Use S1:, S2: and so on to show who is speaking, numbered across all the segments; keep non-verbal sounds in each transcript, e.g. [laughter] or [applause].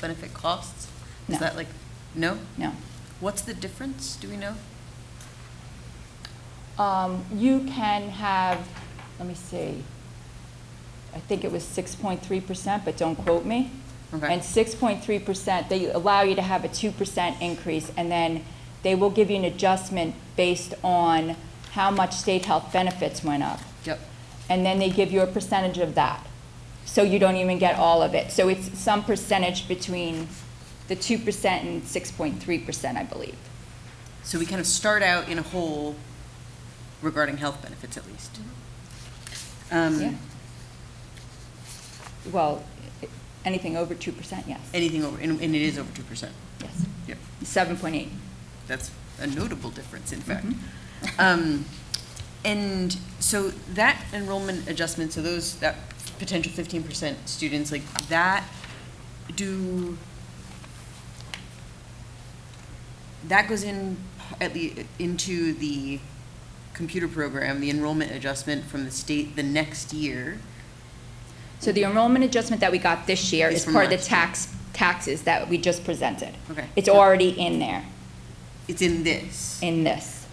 S1: benefit costs? Is
S2: No.
S1: that like, no?
S2: No.
S1: What's the difference? Do we know?
S2: Um, You can have, let me see, I think it was 6.3%, but don't quote me.
S1: Okay.
S2: And 6.3%, they allow you to have a 2% increase, and then they will give you an adjustment based on how much state health benefits went up.
S1: Yep.
S2: And then they give you a percentage of that. So you don't even get all of it. So it's some percentage between the 2% and 6.3%, I believe.
S1: So we kind of start out in a hole regarding health benefits at least. Um,
S2: Mm-hmm. Yeah. Well, i- anything over 2%, yes.
S1: Anything over, and and it is over 2%.
S2: Yes,
S1: Yep.
S2: 7.8.
S1: That's a notable difference, in fact.
S2: Mhm.
S1: [laughs] Um, And so that enrollment adjustment, so those, that potential fifteen percent students, like that, do, that goes in, at the, into the computer program, the enrollment adjustment from the state the next year.
S2: So the enrollment adjustment that we got this year
S1: Is
S2: is
S1: from
S2: part of the
S1: last year.
S2: tax, taxes that we just presented.
S1: Okay.
S2: It's already in there,
S1: It's in this.
S2: in this.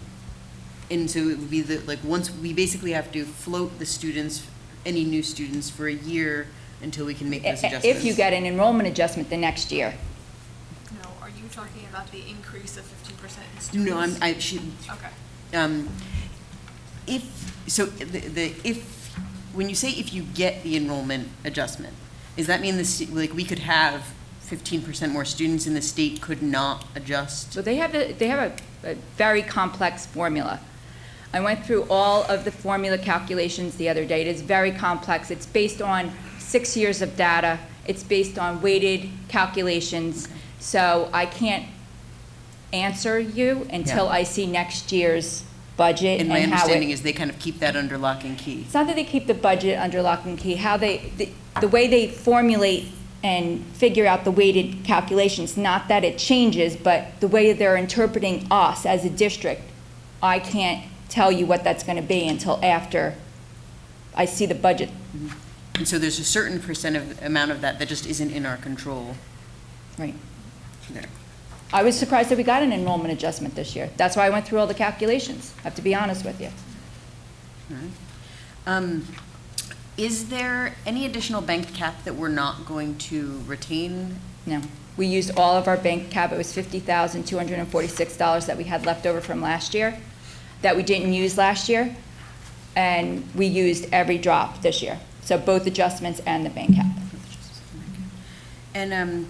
S1: And so it would be that, like, once, we basically have to float the students, any new students for a year until we can make those adjustments.
S2: If you get an enrollment adjustment the next year,
S3: No, are you talking about the increase of fifty percent in students?
S1: No, I'm, I should,
S3: Okay.
S1: um, if, so the, the, if, when you say if you get the enrollment adjustment, does that mean the, stu- like, we could have fifteen percent more students and the state could not adjust?
S2: So they have, a- they have a, a very complex formula. I went through all of the formula calculations the other day. It is very complex. It's based on six years of data. It's based on weighted calculations. So I can't answer you until
S1: Yeah.
S2: I see next year's
S1: And
S2: budget and
S1: my
S2: how
S1: understanding
S2: it.
S1: is they kind of keep that under lock and key.
S2: It's not that they keep the budget under lock and key, how they, the, the way they formulate and figure out the weighted calculations, not that it changes, but the way they're interpreting us as a district, I can't tell you what that's gonna be until after I see the budget.
S1: And so there's a certain percent of, amount of that that just isn't in our control
S2: Right.
S1: there.
S2: I was surprised that we got an enrollment adjustment this year. That's why I went through all the calculations, I have to be honest with you.
S1: Um, Is there any additional bank cap that we're not going to retain?
S2: No. We used all of our bank cap, it was fifty thousand, two hundred and forty-six dollars that we had left over from last year, that we didn't use last year, and we used every drop this year. So both adjustments and the bank cap.
S1: And um,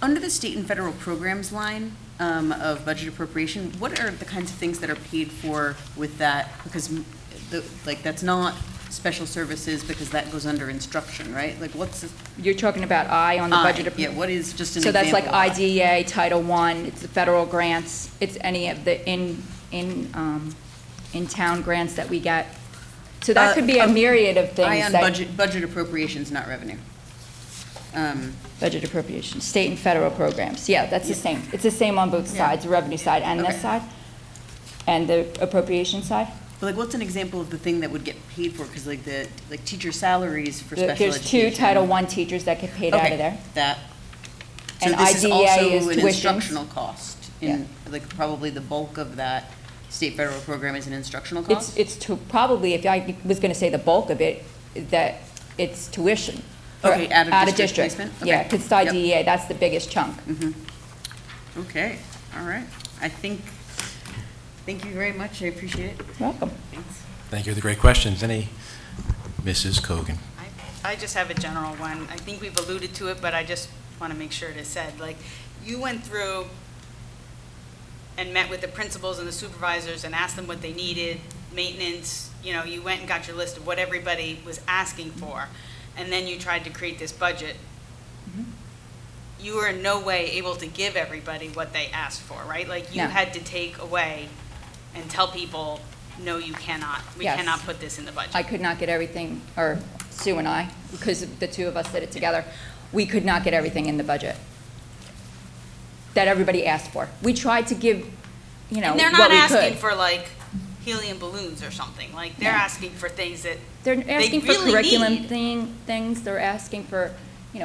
S1: under the state and federal programs line um, of budget appropriation, what are the kinds of things that are paid for with that? Because, m- the- like, that's not special services, because that goes under instruction, right? Like, what's?
S2: You're talking about I on the budget.
S1: I- Yeah, what is, just an
S2: So that's
S1: example?
S2: like
S1: of I?
S2: IDEA, Title I, it's the federal grants, it's any of the in, in, um, in-town grants that we get. So
S1: Uh,
S2: that could be a
S1: um,
S2: myriad of things.
S1: I on
S2: that-
S1: budget, budget appropriations, not revenue. Um,
S2: Budget appropriations, state and federal programs, yeah, that's the same, it's the same on both
S1: Yeah.
S2: sides, the revenue side and
S1: Okay.
S2: this side, and the appropriation side.
S1: But like, what's an example of the thing that would get paid for? Because like the, like teacher salaries for special
S2: There-
S1: education.
S2: There's two Title I teachers that get paid out
S1: Okay,
S2: of there.
S1: That. So
S2: And
S1: this is
S2: IDEA is
S1: also an
S2: tuitions.
S1: instructional cost. In, like, probably the bulk of that state federal program is an instructional
S2: It's,
S1: cost?
S2: it's to, probably, if I was gonna say the bulk of it, that it's tuition.
S1: Okay,
S2: Correct.
S1: out of district
S2: district.
S1: placement?
S2: Yeah,
S1: Okay.
S2: because it's
S1: Yep. Mm-hmm.
S2: IDEA, that's the biggest chunk.
S1: Okay, all right. I think, thank you very much. I appreciate it.
S2: Welcome.
S1: Thanks.
S4: Thank you for the great questions. Any, Mrs. Cogan?
S5: I- I just have a general one. I think we've alluded to it, but I just want to make sure it is said. Like, you went through and met with the principals and the supervisors and asked them what they needed, maintenance, you know, you went and got your list of what everybody was asking for, and then you tried to create this budget.
S2: Mm-hmm.
S5: You were in no way able to give everybody what they asked for, right? Like, you
S2: No.
S5: had to take away and tell people, no, you cannot. We
S2: Yes.
S5: cannot put this in the budget.
S2: I could not get everything, or Sue and I, because the two of us did it together, we could not get everything in the budget that everybody asked for. We tried to give, you know,
S5: And they're not
S2: what we
S5: asking
S2: could.
S5: for like helium balloons or something. Like they're
S2: No.
S5: asking for things that
S2: They're asking for
S5: really
S2: curriculum
S5: need.
S2: thing, things, they're asking for